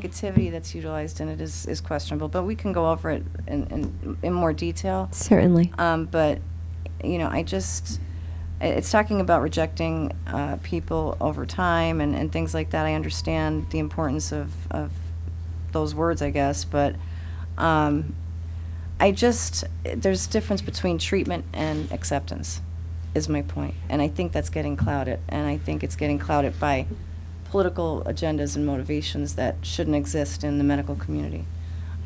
negativity that's utilized in it is, is questionable, but we can go over it in, in, in more detail. Certainly. Um, but, you know, I just, i- it's talking about rejecting, uh, people over time and, and things like that. I understand the importance of, of those words, I guess, but, um, I just, there's difference between treatment and acceptance, is my point. And I think that's getting clouded, and I think it's getting clouded by political agendas and motivations that shouldn't exist in the medical community.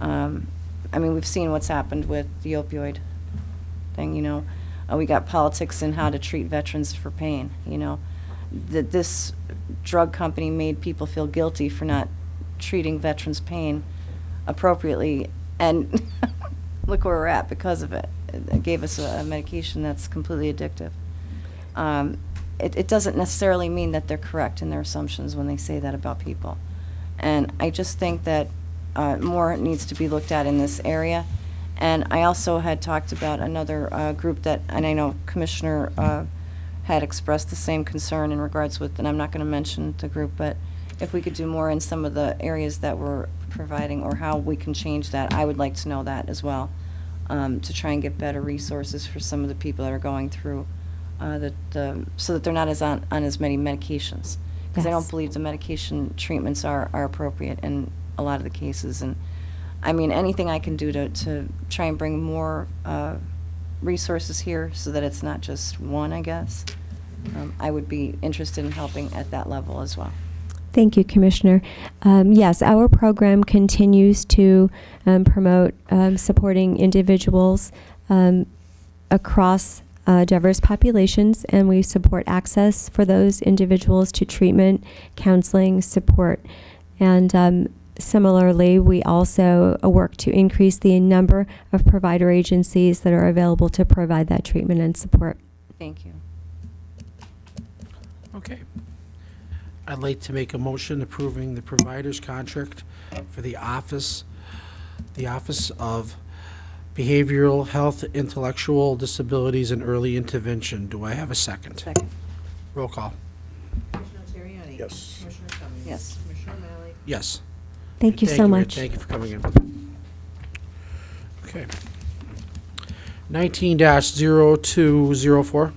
Um, I mean, we've seen what's happened with the opioid thing, you know. Uh, we got politics in how to treat veterans for pain, you know. That this drug company made people feel guilty for not treating veterans' pain appropriately, and look where we're at because of it. It gave us a, a medication that's completely addictive. Um, it, it doesn't necessarily mean that they're correct in their assumptions when they say that about people. And I just think that uh, more needs to be looked at in this area. And I also had talked about another uh, group that, and I know Commissioner uh, had expressed the same concern in regards with, and I'm not going to mention the group, but if we could do more in some of the areas that we're providing or how we can change that, I would like to know that as well, um, to try and get better resources for some of the people that are going through, uh, the, the, so that they're not as on, on as many medications. Because I don't Yes. believe the medication treatments are, are appropriate in a lot of the cases. And I mean, anything I can do to, to try and bring more uh, resources here so that it's not just one, I guess, um, I would be interested in helping at that level as well. Thank you, Commissioner. Um, yes, our program continues to um, promote um, supporting individuals um, across uh, diverse populations, and we support access for those individuals to treatment, counseling, support. And um, similarly, we also uh, work to increase the number of provider agencies that are available to provide that treatment and support. Thank you. Okay. I'd like to make a motion approving the provider's contract for the office, the Office of Behavioral Health, Intellectual Disabilities, and Early Intervention. Do I have a second? Second. Roll call. Commissioner Terriani? Yes. Commissioner Cummings? Yes. Commissioner O'Malley? Yes. Thank you so Rich. much. Thank you for coming in. Okay. Nineteen dash zero two zero four.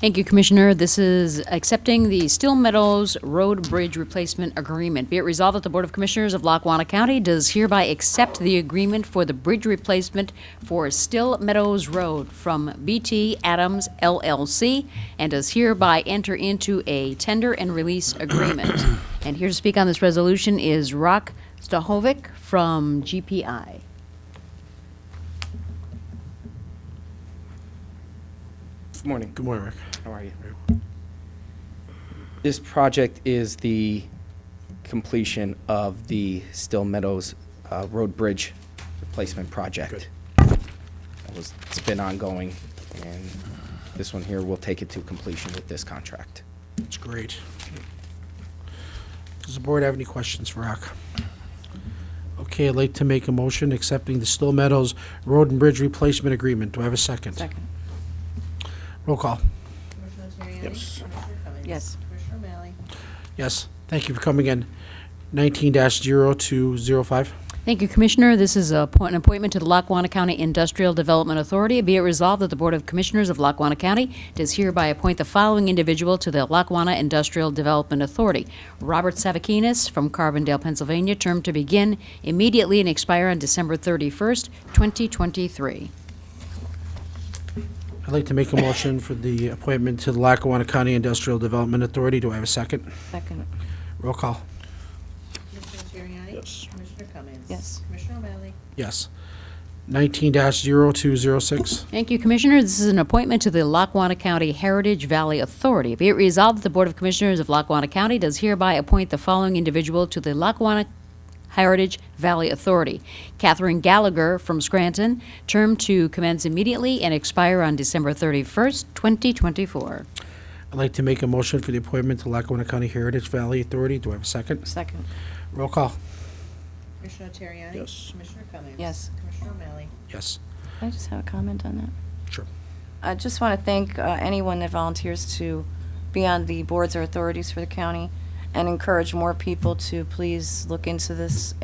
Thank you, Commissioner. This is accepting the Steel Meadows Road Bridge Replacement Agreement. Be it resolved that the Board of Commissioners of Lackawanna County does hereby accept the agreement for the bridge replacement for Still Meadows Road from BT Adams LLC and does hereby enter into a tender and release agreement. And here to speak on this resolution is Rock Stahovic from GPI. Good morning. Good morning, Rick. How are you? This project is the completion of the Still Meadows uh, Road Bridge replacement project. That was, it's been ongoing, and this one here will take it to completion with this contract. That's great. Does the board have any questions for Rock? Okay, I'd like to make a motion accepting the Still Meadows Road and Bridge Replacement Agreement. Do I have a second? Second. Roll call. Commissioner Terriani? Yes. Commissioner Cummings? Yes. Commissioner O'Malley? Yes, thank you for coming in. Nineteen dash zero two zero five. Thank you, Commissioner. This is a appoint- an appointment to the Lackawanna County Industrial Development Authority. Be it resolved that the Board of Commissioners of Lackawanna County does hereby appoint the following individual to the Lackawanna Industrial Development Authority. Robert Savakinis from Carbondale, Pennsylvania, term to begin immediately and expire on December 31st, 2023. I'd like to make a motion for the appointment to the Lackawanna County Industrial Development Authority. Do I have a second? Second. Roll call. Commissioner Terriani? Yes. Commissioner Cummings? Yes. Commissioner O'Malley? Yes. Nineteen dash zero two zero six. Thank you, Commissioner. This is an appointment to the Lackawanna County Heritage Valley Authority. Be it resolved that the Board of Commissioners of Lackawanna County does hereby appoint the following individual to the Lackawanna Heritage Valley Authority. Catherine Gallagher from Scranton, term to commence immediately and expire on December 31st, 2024. I'd like to make a motion for the appointment to Lackawanna County Heritage Valley Authority. Do I have a second? Second. Roll call. Commissioner Terriani? Yes. Commissioner Cummings? Yes. Commissioner O'Malley? Yes, Can I just have a comment on that? sure. I just want to thank uh, anyone that volunteers to be on the boards or authorities for the county. and encourage more people to please look into this